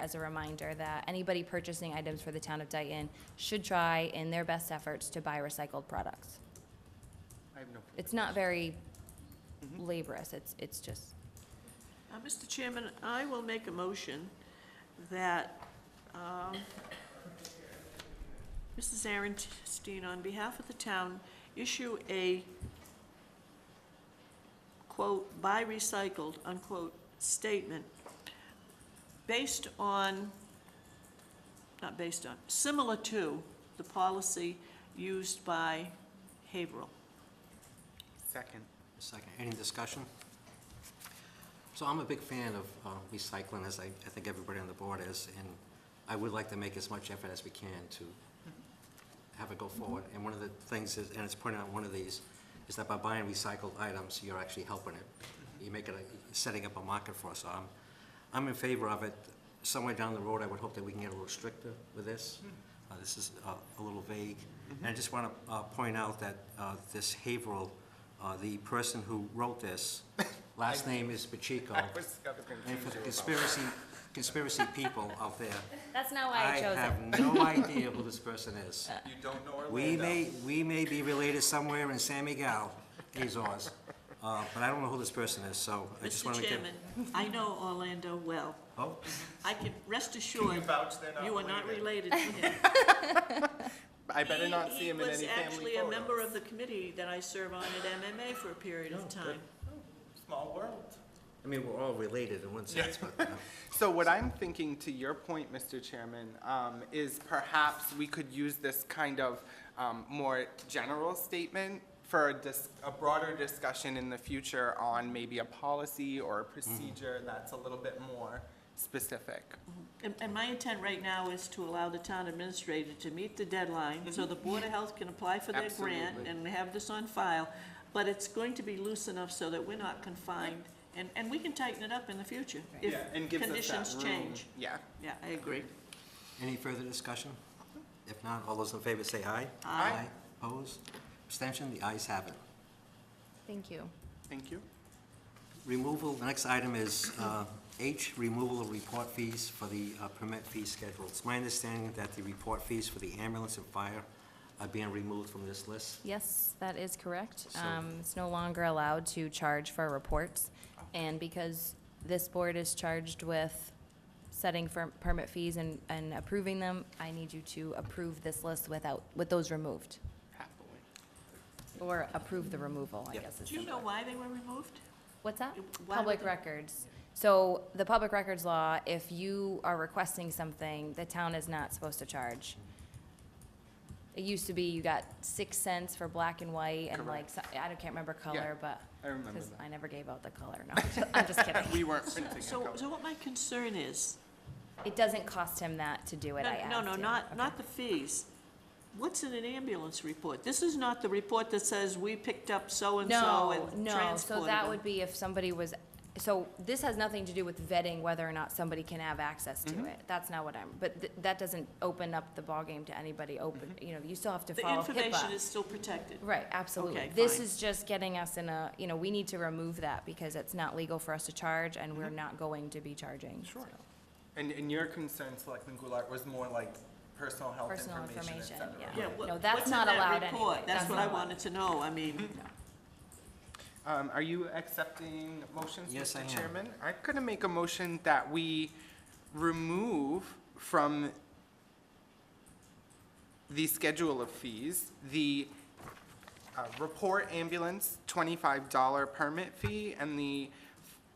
as a reminder that anybody purchasing items for the town of Dayton should try in their best efforts to buy recycled products. I have no. It's not very laborious, it's, it's just, Uh, Mr. Chairman, I will make a motion that um, Mrs. Aaronstein, on behalf of the town, issue a quote, "by recycled," unquote, statement based on, not based on, similar to the policy used by Haverhill. Second. Second, any discussion? So I'm a big fan of uh, recycling, as I, I think everybody on the board is, and I would like to make as much effort as we can to have it go forward. And one of the things is, and it's pointed out in one of these, is that by buying recycled items, you're actually helping it. You make it, a- setting up a market for us. So I'm, I'm in favor of it. Somewhere down the road, I would hope that we can get a little stricter with this. Uh, This is uh, a little vague. And I just want to point out that uh, this Haverhill, uh, the person who wrote this, last name is Pacheco. I was gonna And confuse you for the about. conspiracy, conspiracy people out there, that's not why I I chose it. have no idea who this person is. You don't know Orlando. We may, we may be related somewhere in San Miguel, Azores, uh, but I don't know who this person is, so I just want Mr. to give. Chairman, I know Orlando well. Oh, I can rest Can you assured, vouch they're not you are not related? related to him. I better He- not see him in any He was family actually a member photos. of the committee that I serve on at MMA for a period Oh, of time. Small world. I mean, we're all related in one sense, but uh, So what I'm thinking, to your point, Mr. Chairman, um, is perhaps we could use this kind of um, more general statement for a dis- a broader discussion in the future on maybe a policy or a procedure that's a little bit more specific. And, and my intent right now is to allow the town administrator to meet the deadline, Mm-hmm. so the Board of Health can apply for their grant Absolutely. and have this on file. But it's going to be loose enough so that we're not confined, and, and we can tighten it up in the future if Yeah, and gives us that conditions room. change. Yeah. Yeah, I agree. any further discussion? If not, all those in favor say aye. Aye. Opposed? Abstention? The ayes have it. Thank you. Thank you. Removal, the next item is uh, H, removal of report fees for the uh, permit fee schedule. It's my understanding that the report fees for the ambulance and fire are being removed from this list. Yes, that is correct. So- Um, It's no longer allowed to charge for reports. And because this board is charged with setting for permit fees and, and approving them, I need you to approve this list without, with those removed, Happily. or approve the removal, I Yep. guess. is Do you the know word. why they were removed? What's that? Why would Public they- records. So the public records law, if you are requesting something, the town is not supposed to charge. It used to be you got six cents for black and white and like, so- I don't- can't remember color, but. I remember Because that. I never gave out the color, no, I'm just- I'm just kidding. We weren't printing a So, copy. so what my concern is, It doesn't cost him that to do it, I No, asked No, no, him. not, Okay. not the fees. What's in an ambulance report? This is not the report that says we picked up so-and-so No, and no, so transported that them. would be if somebody was, so this has nothing to do with vetting whether or not somebody can have access Mm-hmm. to it. That's not what I'm, but th- that doesn't open up the ballgame to anybody open, you know, you still have to Mm-hmm. The follow information is HIPAA. still protected. Right, absolutely. Okay, This fine. is just getting us in a, you know, we need to remove that because it's not legal for us to charge and Mm-hmm. we're not going to be charging. Sure. And, and your concern, Selectman Goulart, was more like personal health Personal information, et information, cetera. yeah. Yeah, what- No, that's what's in not that allowed report? anyway. That's That's what not I allowed. wanted to know, I mean, Um, are you accepting motions, Yes, I Mr. am. Chairman? I'm gonna make a motion that we remove from the schedule of fees, the, uh, report ambulance twenty-five dollar permit fee and the,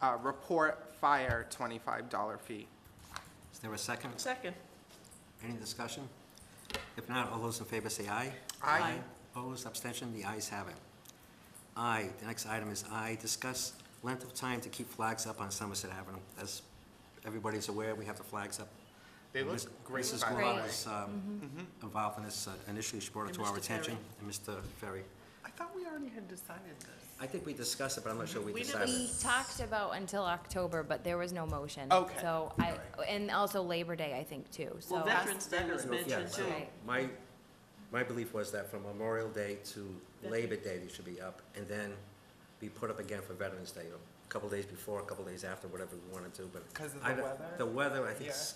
uh, report fire twenty-five dollar fee. Is there a second? second, Any discussion? If not, all those in favor say aye. Aye. Aye. Opposed, abstention, the ayes have it. I, the next item is I, discuss length of time to keep flags up on Somerset Avenue. As everybody's aware, we have the flags up. They And look Ms- great, Mrs. by the Goulart way. was um, involved in this, uh, initially she brought it Mm-hmm. And to our Mr. Ferry. attention. And Mr. Ferry. I thought we already had decided this. I think we discussed it, but I'm not sure we We never- decided. We talked about until October, but there was no motion. Okay. So I, and also Labor Day, I think, too, so. well, Veterans Day was Veterans mentioned Yes. too. Right. My, my belief was that from Memorial Day to Labor Day, they should be up, and then be put up again for Veterans Day, a couple days before, a couple days after, whatever we want to do, but. 'Cause of I the don't- weather? The weather, I think, s-